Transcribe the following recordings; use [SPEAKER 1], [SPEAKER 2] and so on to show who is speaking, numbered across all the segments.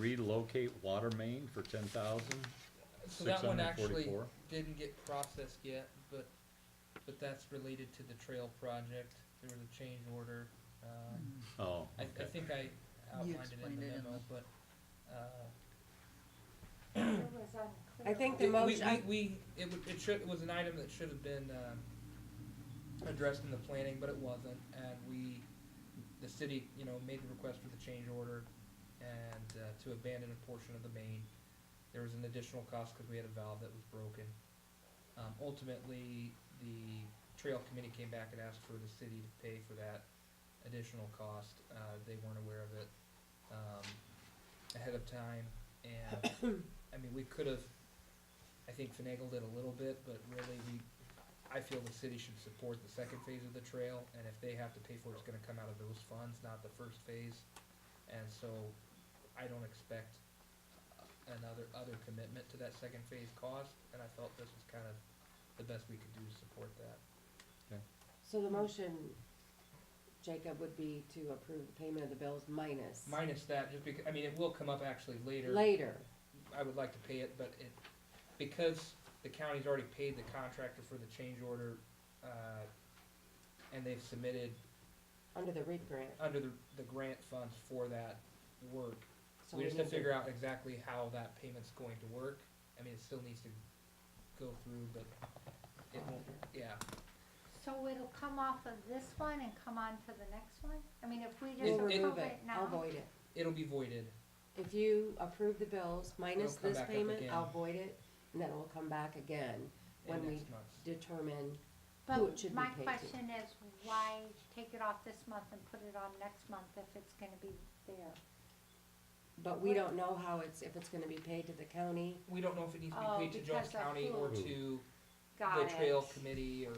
[SPEAKER 1] relocate water main for ten thousand,
[SPEAKER 2] So
[SPEAKER 1] six
[SPEAKER 2] that one
[SPEAKER 1] hundred and
[SPEAKER 2] actually
[SPEAKER 1] forty-four?
[SPEAKER 2] didn't get processed yet, but, but that's related to the trail project. There was a change order. Um,
[SPEAKER 1] Oh,
[SPEAKER 2] I, I
[SPEAKER 1] okay.
[SPEAKER 2] think I outlined it in
[SPEAKER 3] explained
[SPEAKER 2] the
[SPEAKER 3] it in
[SPEAKER 2] memo,
[SPEAKER 3] the-
[SPEAKER 2] but, uh,
[SPEAKER 4] I think the
[SPEAKER 2] It- we-
[SPEAKER 4] motion, I-
[SPEAKER 2] We, we, it would, it should, it was an item that should have been, um, addressed in the planning, but it wasn't, and we, the city, you know, made the request for the change order and, uh, to abandon a portion of the main. There was an additional cost because we had a valve that was broken. Um, ultimately, the trail committee came back and asked for the city to pay for that additional cost. Uh, they weren't aware of it, um, ahead of time, and, I mean, we could have I think finagled it a little bit, but really we, I feel the city should support the second phase of the trail, and if they have to pay for it, it's gonna come out of those funds, not the first phase. And so I don't expect another, other commitment to that second phase cost, and I felt this was kind of the best we could do to support that.
[SPEAKER 4] so the motion, Jacob, would be to approve the payment of the bills minus
[SPEAKER 2] Minus that, just because, I mean, it will come up actually later.
[SPEAKER 4] later.
[SPEAKER 2] I would like to pay it, but it, because the county's already paid the contractor for the change order, uh, and they've submitted
[SPEAKER 4] Under the REAP grant.
[SPEAKER 2] under the, the grant funds for that work.
[SPEAKER 4] So
[SPEAKER 2] We just have
[SPEAKER 4] need
[SPEAKER 2] to figure out exactly how that payment's going to work. I mean, it still needs to go through, but it won't, yeah.
[SPEAKER 5] So it'll come off of this one and come on to the next one? I mean, if we
[SPEAKER 4] We'll
[SPEAKER 5] just
[SPEAKER 2] It- it-
[SPEAKER 4] remove
[SPEAKER 5] approve
[SPEAKER 4] it,
[SPEAKER 5] it
[SPEAKER 4] I'll
[SPEAKER 5] now,
[SPEAKER 4] void it.
[SPEAKER 2] It'll be voided.
[SPEAKER 4] If you approve the bills minus
[SPEAKER 2] It'll come
[SPEAKER 4] this
[SPEAKER 2] back up
[SPEAKER 4] payment,
[SPEAKER 2] again.
[SPEAKER 4] I'll void it, and then we'll come back again
[SPEAKER 2] in
[SPEAKER 4] when we
[SPEAKER 2] next month.
[SPEAKER 4] determine who it
[SPEAKER 5] but
[SPEAKER 4] should be
[SPEAKER 5] my
[SPEAKER 4] paid to.
[SPEAKER 5] question is, why take it off this month and put it on next month if it's gonna be there?
[SPEAKER 4] But we don't know how it's, if it's gonna be paid to the county.
[SPEAKER 2] We don't know if it needs to
[SPEAKER 5] Oh,
[SPEAKER 2] be paid to Jones
[SPEAKER 5] because of
[SPEAKER 2] County or
[SPEAKER 1] who?
[SPEAKER 2] to the
[SPEAKER 5] Got it.
[SPEAKER 2] trail committee or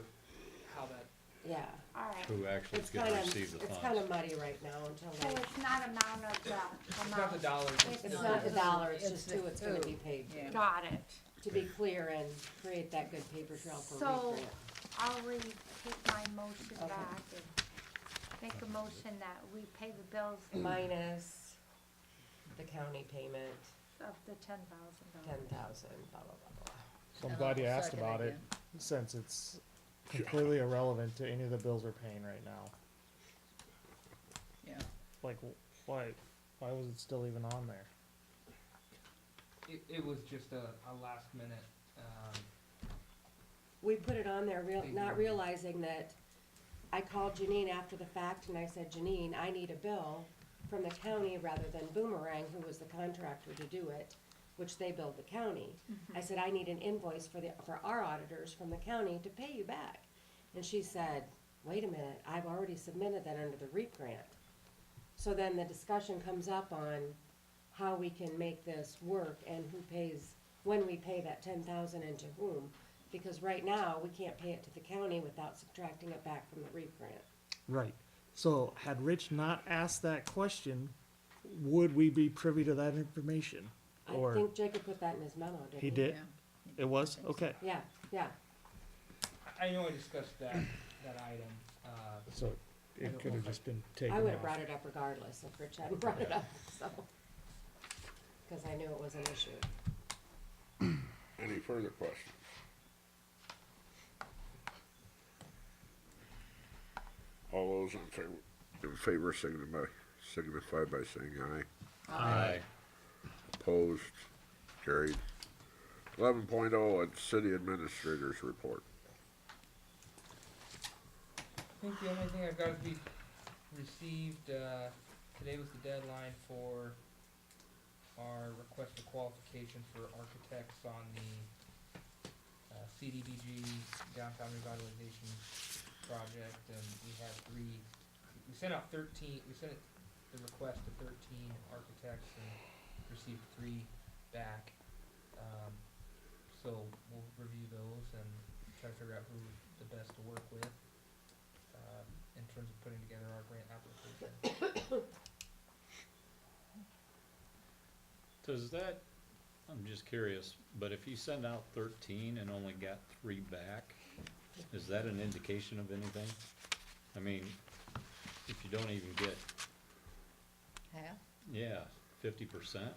[SPEAKER 2] how that,
[SPEAKER 4] Yeah.
[SPEAKER 5] Alright, so
[SPEAKER 1] Oh, Who actually
[SPEAKER 4] It's
[SPEAKER 1] is gonna
[SPEAKER 4] kinda,
[SPEAKER 1] receive the
[SPEAKER 4] it's kinda
[SPEAKER 1] funds?
[SPEAKER 4] muddy right now until like,
[SPEAKER 5] it's not amount of the amount.
[SPEAKER 2] it's not the dollars.
[SPEAKER 5] It's
[SPEAKER 4] it's
[SPEAKER 5] not
[SPEAKER 4] not the
[SPEAKER 5] the-
[SPEAKER 4] dollar, it's
[SPEAKER 3] it's
[SPEAKER 4] just
[SPEAKER 3] the
[SPEAKER 4] who it's gonna
[SPEAKER 3] who.
[SPEAKER 4] be paid to.
[SPEAKER 3] Yeah.
[SPEAKER 5] Got it.
[SPEAKER 4] to be clear and create that good paper trail for
[SPEAKER 5] So-
[SPEAKER 4] REAP grant.
[SPEAKER 5] I'll re-take my motion
[SPEAKER 4] Okay.
[SPEAKER 5] back and make a motion that we pay the bills
[SPEAKER 4] Minus the county payment,
[SPEAKER 5] of the ten thousand dollars.
[SPEAKER 4] ten thousand, blah, blah, blah, blah.
[SPEAKER 6] So I'm glad you
[SPEAKER 3] I'll
[SPEAKER 6] asked
[SPEAKER 3] second
[SPEAKER 6] about it,
[SPEAKER 3] again.
[SPEAKER 6] since it's completely irrelevant to any of the bills we're paying right now.
[SPEAKER 3] Yeah.
[SPEAKER 6] Like, wh- why, why was it still even on there?
[SPEAKER 2] It, it was just a, a last minute, um,
[SPEAKER 4] We put it on there, real,
[SPEAKER 2] Big
[SPEAKER 4] not
[SPEAKER 2] one.
[SPEAKER 4] realizing that, I called Janine after the fact and I said, Janine, I need a bill from the county rather than Boomerang, who was the contractor to do it, which they billed the county. I said, I need an invoice for the, for our auditors from the county to pay you back. And she said, wait a minute, I've already submitted that under the REAP grant. So then the discussion comes up on how we can make this work and who pays, when we pay that ten thousand and to whom. Because right now, we can't pay it to the county without subtracting it back from the REAP grant.
[SPEAKER 6] Right, so had Rich not asked that question, would we be privy to that information?
[SPEAKER 4] I
[SPEAKER 6] Or,
[SPEAKER 4] think Jacob put that in his memo, didn't he?
[SPEAKER 6] he did,
[SPEAKER 3] Yeah.
[SPEAKER 6] it was, okay,
[SPEAKER 4] Yeah, yeah.
[SPEAKER 2] I know I discussed that, that item, uh,
[SPEAKER 7] So
[SPEAKER 2] I don't
[SPEAKER 7] it could
[SPEAKER 2] know
[SPEAKER 7] have
[SPEAKER 2] if I-
[SPEAKER 7] just been taken
[SPEAKER 4] I would have
[SPEAKER 7] off.
[SPEAKER 4] brought it up regardless if Rich hadn't brought it up, so. Because I knew it was an issue.
[SPEAKER 8] Any further questions? All those in favor, in favor signify, signify by saying aye.
[SPEAKER 1] Aye.
[SPEAKER 8] Opposed, carried. Eleven at city administrators report.
[SPEAKER 2] I think the only thing I've got to be received, uh, today was the deadline for our request for qualification for architects on the uh, CDBG downtown revitalization project, and we have three, we sent out thirteen, we sent it- the request to thirteen architects and received three back. Um, so we'll review those and try to figure out who the best to work with um, in terms of putting together our grant application.
[SPEAKER 1] Does that, I'm just curious, but if you send out thirteen and only got three back, is that an indication of anything? I mean, if you don't even get,
[SPEAKER 3] Yeah.
[SPEAKER 1] yeah, fifty percent,